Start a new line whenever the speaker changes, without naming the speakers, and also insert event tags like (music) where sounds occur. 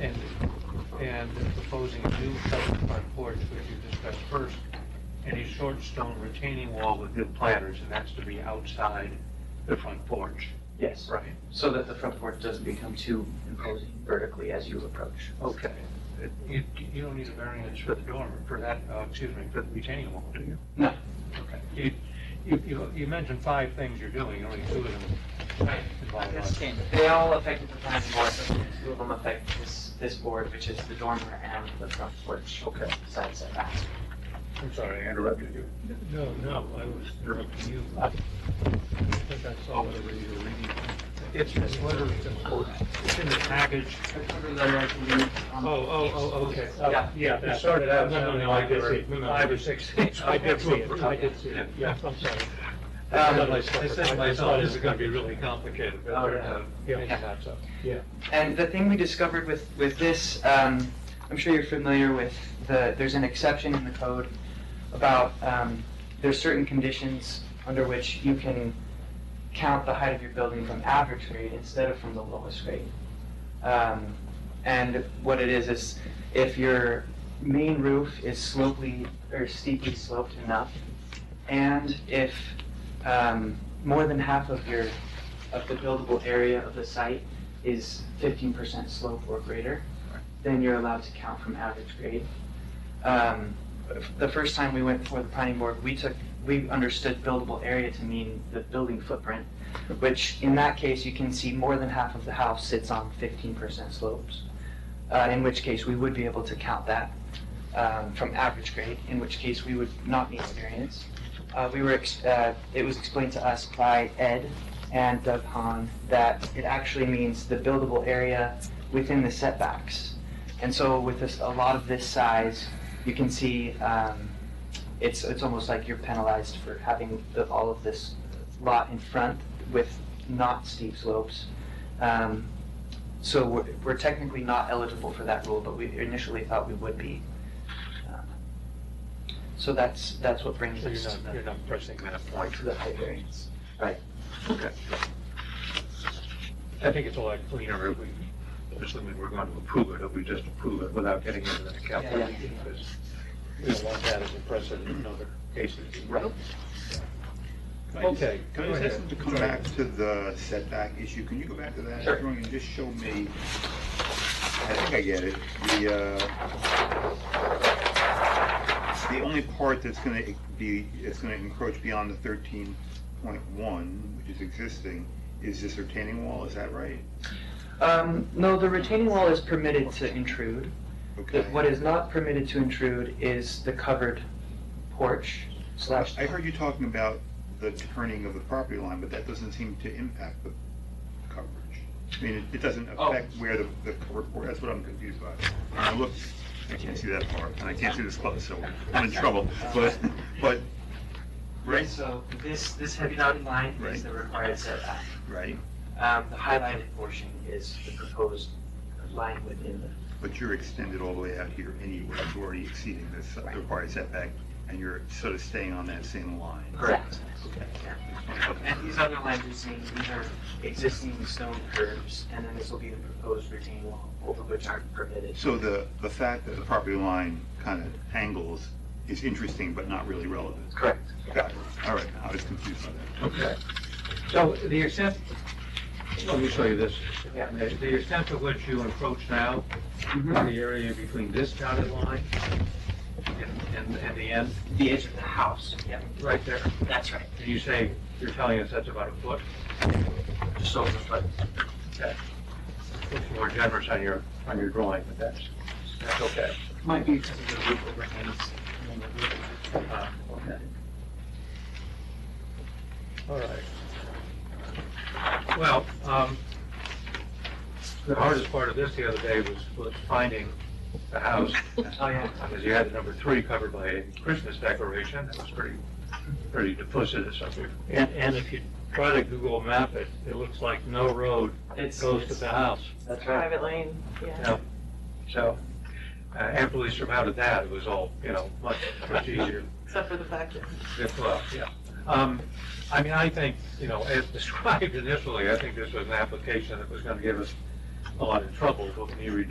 and, and proposing a new covered front porch, which you discussed first, and a short stone retaining wall with good planters, and that's to be outside the front porch.
Yes,
Right.
so that the front porch doesn't become too imposing vertically as you approach.
Okay. You, you don't need a variance for the dormer, for that, uh, excuse me, for the retaining wall, do you?
No.
Okay. You, you, you, you mentioned five things you're doing, only two of them.
I
involve us.
understand. They all affect the planning board, but two of them affect this, this board, which is the dormer and the front porch
Okay.
side setbacks.
I'm sorry, I interrupted you. No, no, I was interrupting you. I think I saw whatever you were reading. It's, it's literally, it's in the package. Oh, oh, oh, okay. Uh,
Yeah.
Yeah, it started out. No, no, no, I did see it. Five or six (laughs) things. I did see (laughs) it. I did see it. Yeah, I'm sorry. I thought myself- I said to myself, this is going to be really complicated, but
Oh,
it turned
yeah.
out, yeah,
Yeah.
it's not so. Yeah.
And the thing we discovered with, with this, um, I'm sure you're familiar with the, there's an exception in the code about, um, there's certain conditions under which you can count the height of your building from average grade instead of from the lowest grade. Um, and what it is, is if your main roof is slopely, or steeply sloped enough, and if, um, more than half of your, of the buildable area of the site is fifteen percent slope or greater, then you're allowed to count from average grade. Um, The first time we went before the planning board, we took, we understood buildable area to mean the building footprint, which in that case, you can see more than half of the house sits on fifteen percent slopes, uh, in which case we would be able to count that um, from average grade, in which case we would not need a variance. Uh, We were, ex- uh, it was explained to us by Ed, and Doug Hahn that it actually means the buildable area within the setbacks. And so with this, a lot of this size, you can see, um, it's, it's almost like you're penalized for having the, all of this lot in front with not steep slopes. Um, so we're, we're technically not eligible for that rule, but we initially thought we would be. Uh, So that's, that's what brings
So
us
you're
to
not, you're
the,
not pressing that (laughs) point.
to the height variance.
Okay. I think it's a lot cleaner if we, assuming we're going to approve it, if we just approve it without getting into that calculation. because We don't want that as a precedent in other cases.
Right.
Okay.
Can I
go
just ask
ahead.
them to come back to the setback issue? Can you go back to that
Sure.
drawing and just show me? I think I get it. The, uh, the only part that's gonna be, that's gonna encroach beyond the thirteen point one, which is existing, is this retaining wall, is that right?
Um, no, the retaining wall is permitted to intrude.
Okay.
The- What is not permitted to intrude is the covered porch slash.
I heard you talking about the turning of the property line, but that doesn't seem to impact the coverage. I mean, it, it doesn't
Oh.
affect where the, the cover, or that's what I'm confused by. When I look, I can't see that far, and I can't see this close, so I'm in trouble, but, but, right,
So this, this heavy dotted line is
Right.
the required setback.
right,
Um, the highlighted portion is the proposed line within the
but you're extended all the way out here anyway, you're already exceeding this required setback, and you're sort of staying on that same line.
Correct.
Okay.
And these other lines mean these are existing stone curves, and then this will be the proposed retaining wall, both of which aren't permitted.
So the, the fact that the property line kind of angles is interesting, but not really relevant.
Correct.
Got it. All right, I was confused by that.
Okay. So the extent, let me show you this.
Yeah.
The the extent to which you encroach now, the area between this dotted line and- and, and the end,
The edge of the house. Yep,
right there,
that's right.
and you say, you're telling us that's about a foot?
Just over the foot.
It's more generous on your, on your drawing, but that's, that's okay.
Might be because of the roof overhangs.
Uh, okay. All right. Well, um, the hardest part of this the other day was, was finding the house.
Oh, yeah.
Because you had the number three covered by a Christmas decoration, that was pretty, pretty duplicitous up there. And, and if you try to Google map it, it looks like no road
It's-
goes to
it's-
the house.
That's right.
Private lane, yeah.
Yeah, so uh, after we surmounted that, it was all, you know, much, much easier.
Except for the fact that
Good luck, yeah. Um, I mean, I think, you know, as (laughs) described initially, I think this was an application that was gonna give us a lot of trouble, but when you redo